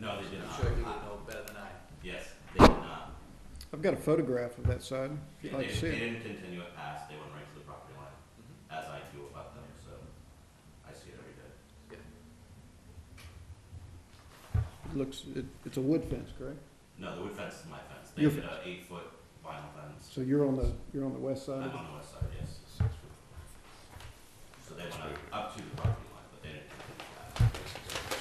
No, they did I'm not. sure you would I- know better than I. Yes, they did not. I've got a photograph of that side. They, I'd like to see they it. didn't continue it past, they went right to the property line, as I do about them, so I see it every day. It Looks, it, it's a wood fence, correct? No, the wood fence is my fence. They Your did a eight-foot vinyl fence. So uh, you're on the, you're on the west I'm side of it? on the west side, yes. So they went up, up to the property line, but they didn't continue it past.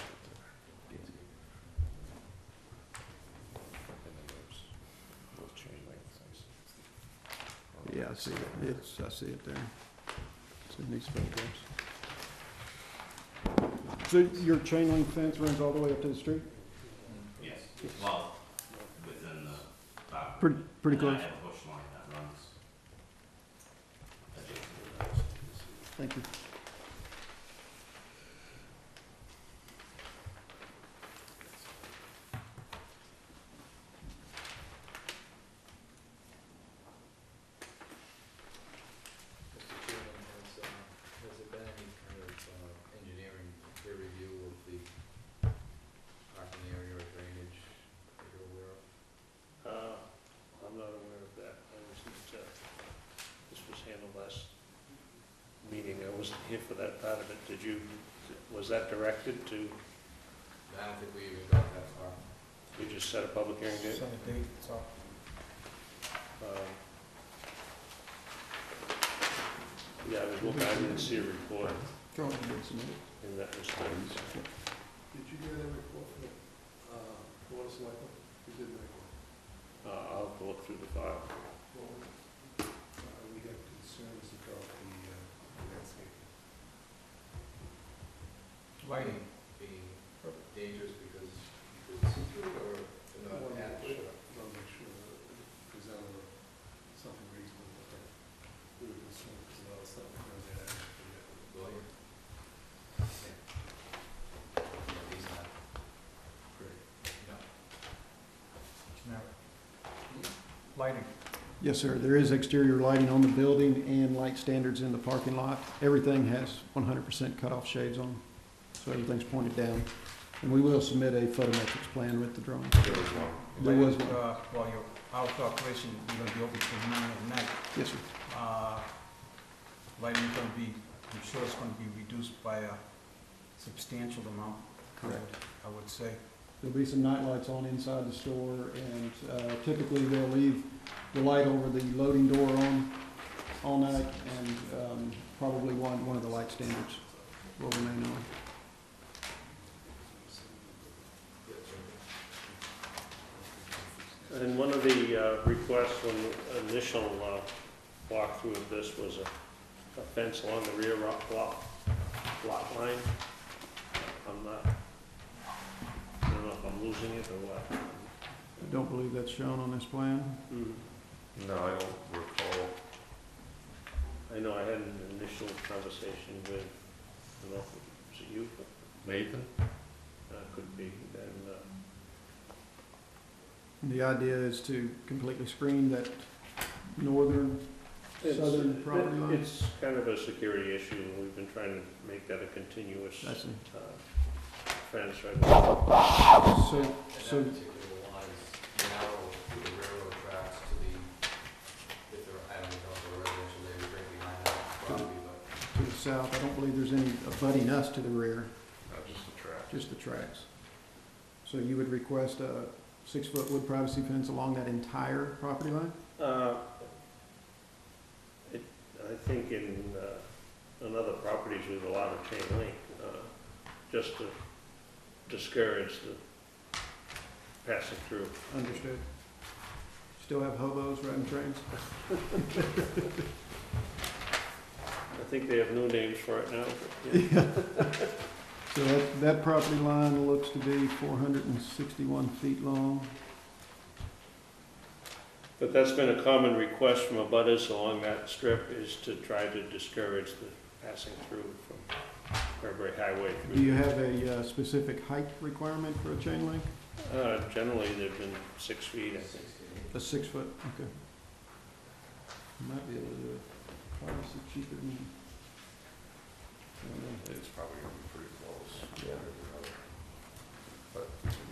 Yeah, I see it. It's, I see it there. It's in these photographs. So your chain link fence runs all the way up to the street? Yes, well, within the boundary. Pretty, pretty And close. I have a bush line that runs adjacent to that. Thank you. Mr. Chairman, has, uh, has there been any kind of, uh, engineering peer review of the parking area or drainage that you're aware of? Uh, I'm not aware of that. I wasn't, uh, this was handled last meeting. I wasn't here for that part of it. Did you, was that directed to, you I don't think we even got that far. just set a public hearing date? Um, Yeah, I was looking, I didn't see a report in that respect. Did you get any report from the, uh, Board of Selectmen? You did make one. Uh, I'll have to look through the file. What was it? Uh, we have concerns about the, uh, landscape. Lighting. Being dangerous because you could see through it or to I not wanna catch. make sure- wanna make sure that it presented something reasonable, but that we were concerned because a lot of stuff goes in actually. Lawyer. Yeah, he's not great. No. Lighting. Yes, sir. There is exterior lighting on the building and light standards in the parking lot. Everything has one hundred percent cutoff shades on, so everything's pointed down. And we will submit a photometrics plan with the drawing. There was one. Uh, Well, your hours of operation, you're gonna be open till nine at night. Yes, sir. Uh, Lighting's gonna be, I'm sure it's gonna be reduced by a substantial amount. I would- Correct. I would say. There'll be some night lights on inside the store, and uh, typically they'll leave the light over the loading door on all night, and um, probably one, one of the light standards will remain on. And one of the uh, requests when the initial uh, walkthrough of this was a a fence along the rear rock lot, lot line. I'm not, I don't know if I'm losing it or what. I don't believe that's shown on this plan. Mm, No, I don't recall. I know I had an initial conversation with, I don't know if it was you, Nathan? but uh, could be, and uh, The idea is to completely screen that northern, It's- southern property line. It's kind of a security issue, and we've been trying to make that a continuous I see. uh, fence right now. So, And So- that particular one is narrow through the railroad tracks to the, if there, I don't know if there are residential neighbors right behind that property, but to the south, I don't believe there's any abutting us to the rear, Not just the track. just the tracks. So you would request a six-foot wood privacy fence along that entire property line? Uh, it- I think in, uh, on other properties with a lot of chain link, uh, just to discourage the passing through. Understood. Still have hobos riding trains? I think they have new names for it now, but, yeah. So that, that property line looks to be four hundred and sixty-one feet long. But that's been a common request from abutters along that strip, is to try to discourage the passing through from Cranberry Highway. Do you have a uh, specific height requirement for a chain link? Uh, generally, they've been six feet, I think. sixteen. A six-foot, okay. Might be able to do it, probably cheaper than. I don't know. It's probably gonna be pretty close. Yeah.